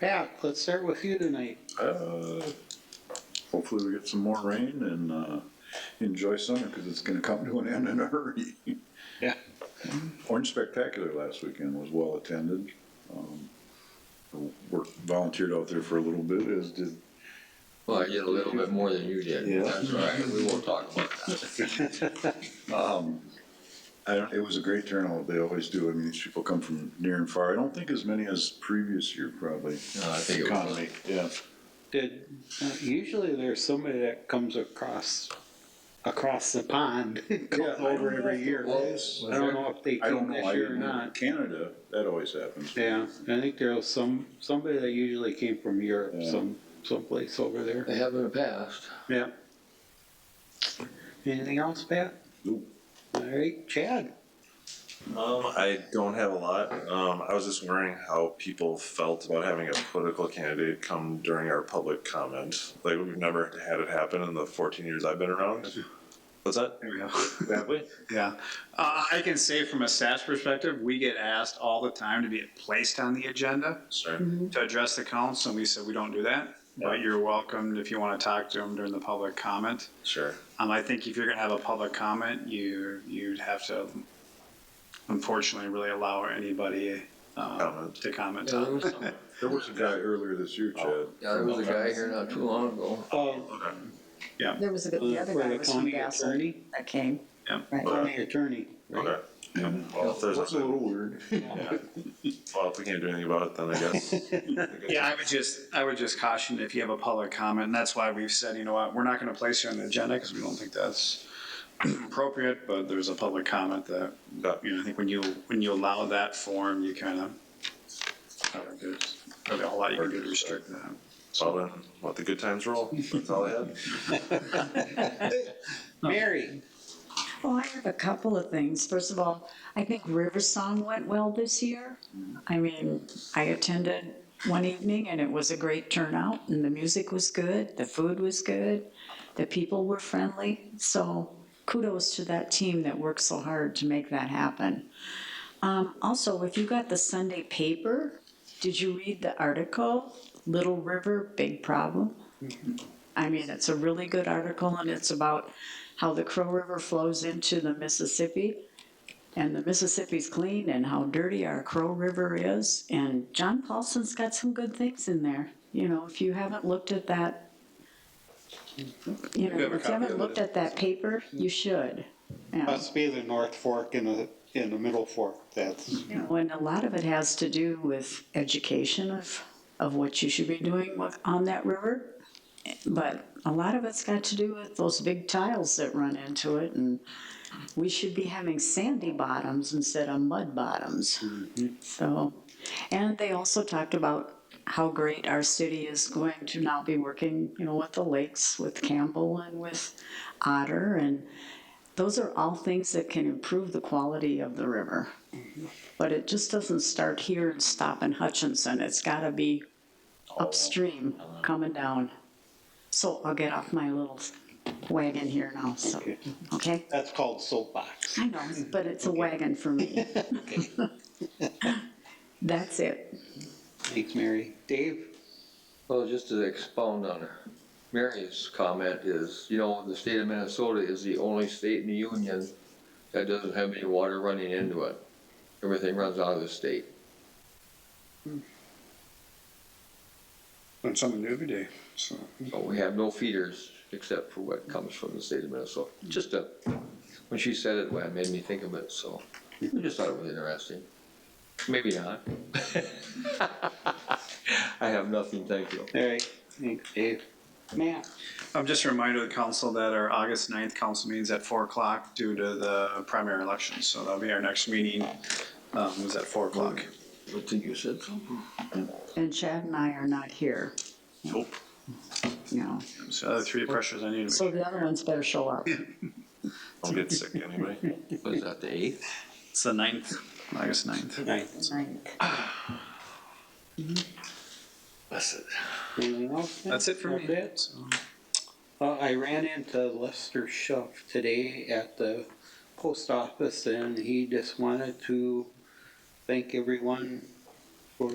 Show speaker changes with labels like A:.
A: Pat, let's start with you tonight.
B: Uh, hopefully we get some more rain and, uh, enjoy summer, cause it's gonna come to an end in a hurry.
A: Yeah.
B: Orange Spectacular last weekend was well attended. Um, Worked, volunteered out there for a little bit, as did,
C: Well, I did a little bit more than you did.
B: Yeah.
C: That's all right, we won't talk about that.
B: I don't, it was a great turnout, they always do, I mean, these people come from near and far, I don't think as many as previous year probably.
C: No, I think it was,
B: Economy, yeah.
A: Did, uh, usually there's somebody that comes across, across the pond,
B: Yeah,
A: comes
B: I
A: over
B: don't
A: every
B: know.
A: year.
B: Was
A: I don't
B: there-
A: know if they
B: I don't
A: came
B: know,
A: this
B: I
A: year or
B: didn't,
A: not.
B: Canada, that always happens.
A: Yeah, I think there was some, somebody that usually came from Europe,
B: Yeah.
A: some, someplace over there.
C: they have in the past.
A: Yeah. Anything else, Pat?
B: Nope.
A: All right, Chad?
D: Um, I don't have a lot. Um, I was just wondering how people felt about having a political candidate come during our public comment. Like we've never had it happen in the 14 years I've been around. What's that?
E: There we go.
D: Have we?
E: Yeah. Uh, I can say from a staff's perspective, we get asked all the time to be placed on the agenda
D: Sure.
E: to address the council, and we said we don't do that. But you're welcomed if you want to talk to them during the public comment.
D: Sure.
E: Um, I think if you're gonna have a public comment, you, you'd have to unfortunately really allow anybody, um,
D: Comment.
E: to comment.
C: Yeah, there was some- yeah,
B: There was a guy earlier this year, Chad.
C: there was a guy here not too long ago.
A: Oh,
D: Okay.
F: There was a, the other guy
A: the
F: was from
A: county
F: Vassar
A: attorney?
F: that came.
E: Yeah.
F: Right.
A: County attorney. right?
D: Okay. Well, if there's,
B: That's a little weird.
D: well, if we can't do anything about it, then I guess.
E: Yeah, I would just, I would just caution if you have a public comment, and that's why we've said, you know what, we're not gonna place you on the agenda, because we don't think that's appropriate, but there's a public comment that,
D: Yeah.
E: you know, I think when you, when you allow that form, you kind of, I don't know, there's probably a whole lot you can do to restrict that.
D: Well, then, let the good times roll. That's all I had.
A: Mary?
F: Well, Oh, I have a couple of things. First of all, I think River Song went well this year.
A: Mm.
F: I mean, I attended one evening and it was a great turnout and the music was good, the food was good, the people were friendly. So kudos to that team that worked so hard to make that happen. Um, also, if you got the Sunday paper, did you read the article, Little River, Big Problem?
E: Mm-hmm.
F: I mean, it's a really good article and it's about how the Crow River flows into the Mississippi. And the Mississippi's clean and how dirty our Crow River is. And John Paulson's got some good things in there. You know, if you haven't looked at that, you know,
E: Mm-hmm. You have a
F: if you
E: copy
F: haven't
E: of
F: looked
E: it.
F: at that paper, you should. Yeah.
A: Must be the North Fork and the, in the Middle Fork, that's,
F: You know, and a lot of it has to do with education of, of what you should be doing with- on that river. But a lot of it's got to do with those big tiles that run into it and we should be having sandy bottoms instead of mud bottoms. So, and they also talked about how great our city is going to now be working, you know, with the lakes, with Campbell and with Otter and those are all things that can improve the quality of the river. But it just doesn't start here and stop in Hutchinson. It's gotta be upstream, coming down. So I'll get off my little wagon here now, so, okay?
A: that's called soapbox.
F: I know, but it's a wagon for me. That's it.
A: Thanks, Mary. Dave?
C: Well, just to expound on Mary's comment is, you know, the state of Minnesota is the only state in the union that doesn't have any water running into it. Everything runs out of the state.
E: Learn something new every day, so.
C: So we have no feeders except for what comes from the state of Minnesota. Just a, when she said it, well, it made me think of it, so I just thought it was interesting. Maybe not. I have nothing, thank you.
A: All right, thanks, Dave. Matt?
E: I'm Um, just a reminder to the council that our August 9th council meeting's at four o'clock due to the primary election, so that'll be our next meeting, um, was at four o'clock.
C: I think you said something.
F: And Chad and I are not here,
E: Nope.
F: no.
E: So the other three pressures I need to
F: So
E: make.
F: the other ones better show up.
D: Don't get sick anyway.
C: Was that the eighth?
E: It's the ninth, August ninth.
A: Right.
D: That's it.
A: Anything else? Matt?
E: That's it for me.
A: That's it?
E: So-
A: Uh, I ran into Lester Schuff today at the post office and he just wanted to thank everyone for